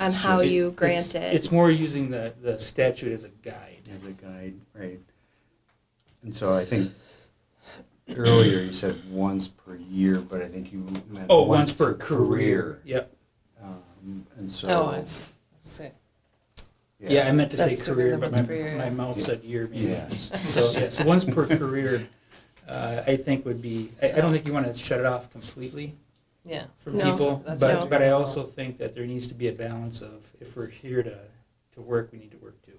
on how It- you grant it's- it. It's more using the, the statute as a guide. as a guide, right? And so I think earlier you said once per year, but I think you meant Oh, once per career. Yep. Um, and so Oh, I see. I see. Yeah, I meant to say That's different career, than but once my, per year. my mouth said year maybe. Yeah. So, yeah, so once per career, uh, I think would be, I, I don't think you want to shut it off completely Yeah. from No, people. that's But, not but I reasonable. also think that there needs to be a balance of, if we're here to, to work, we need to work too.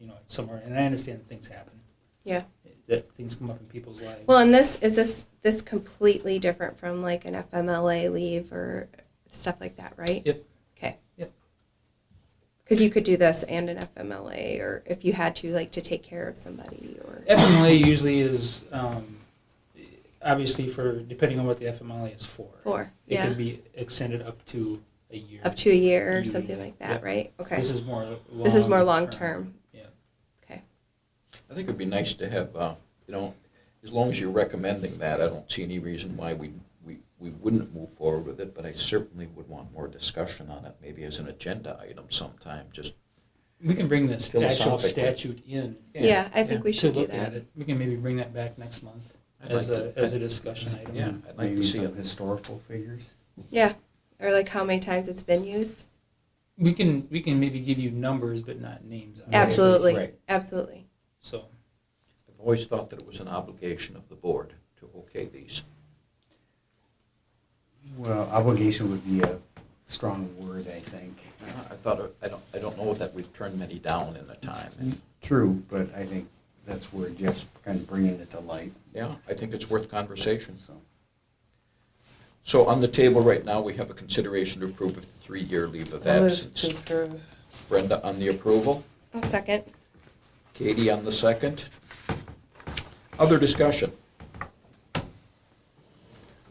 You know, somewhere, and I understand things happen. Yeah. That things come up in people's lives. Well, and this is this this completely different from like an FMLA leave or stuff like that, right? Yep. Okay. Yep. Because you could do this and an FMLA, or if you had to, like to take care of somebody, or FMLA usually is, um, obviously for, depending on what the FMLA is for. or It yeah, can be extended up to a year. up to a year or Usually, something like that, yeah. right? Okay. This is more long. This is more long term. Yeah. Okay. I think it'd be nice to have, uh, you know, as long as you're recommending that, I don't see any reason why we, we, we wouldn't move forward with it, but I certainly would want more discussion on it, maybe as an agenda item sometime, just. We can bring this actual Philosophically. statute in Yeah, I think we to should do look that. at it. We can maybe bring that back next month I'd as like a, to- as a discussion item. Yeah, I'd like maybe to see some it. historical figures. Yeah, or like how many times it's been used. We can, we can maybe give you numbers, but not names. obviously. Absolutely, Right. absolutely. So, I've always thought that it was an obligation of the board to okay these. Well, obligation would be a strong word, I think. Uh, I thought, it- I don't, I don't know that we've turned many down in the time, and, True, but I think that's where Jeff's kind of bringing it to light. yeah, I think it's worth conversation. So So on the table right now, we have a consideration to approve a three-year leave of I'll move absence. to approve. Brenda on the approval. I'll second. Katie on the second. Other discussion?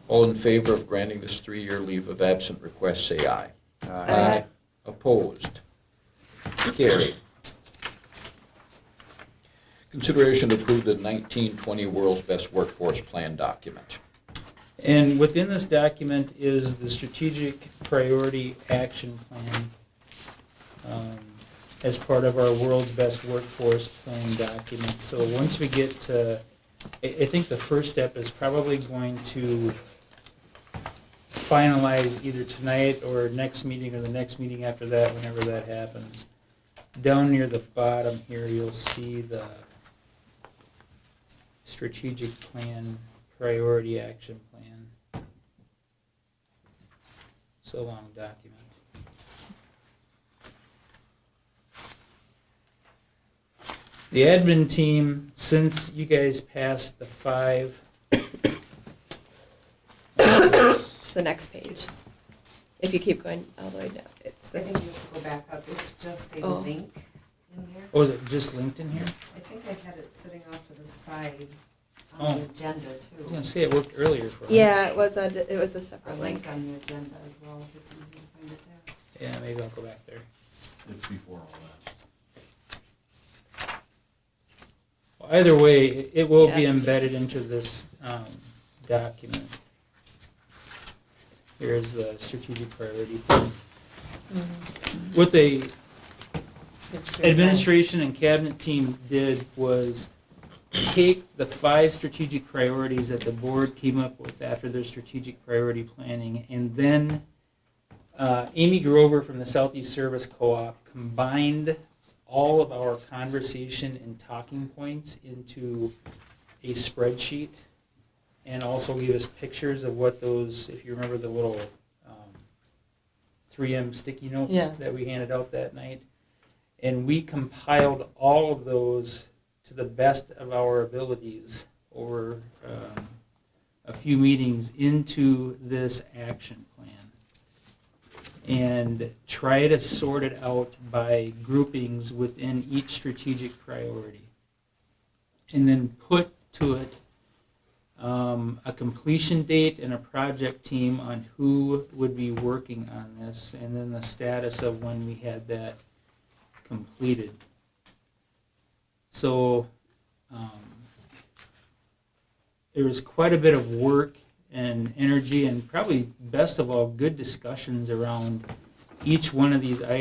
All in favor of granting this three-year leave of absent request, say aye. Aye. Opposed? Carried. Consideration to approve the 1920 World's Best Workforce Plan document. and within this document is the strategic priority action plan um, as part of our world's best workforce plan document. So once we get to, I, I think the first step is probably going to finalize either tonight or next meeting or the next meeting after that, whenever that happens. Down near the bottom here, you'll see the strategic plan, priority action plan. It's a long document. The admin team, since you guys passed the five. It's the next page. If you keep going all the way down, it's I this. think you have to go back up, it's just a Oh. link in there. Oh, is it just linked in here? I think I had it sitting off to the side Oh. on the agenda I was gonna too. say it worked earlier for us. Yeah, it was a it was a Or separate link. link on the agenda as well, if it's easy to find it there. Yeah, maybe I'll go back there. It's before all that. Well, Either way, it- it will be Yeah. embedded into this um, document. Here is the strategic priority. plan. What the administration and cabinet team did was take the five strategic priorities that the board came up with after their strategic priority planning, and then uh, Amy Grover from the Southeast Service Co-op combined all of our conversation and talking points into a spreadsheet and also gave us pictures of what those, if you remember the little um, 3M sticky notes Yeah. that we handed out that night. And we compiled all of those to the best of our abilities over um, a few meetings into this action plan and try to sort it out by groupings within each strategic priority. And then put to it um, a completion date and a project team on who would be working on this, and then the status of when we had that completed. So um, there was quite a bit of work and energy, and probably best of all, good discussions around each one of these items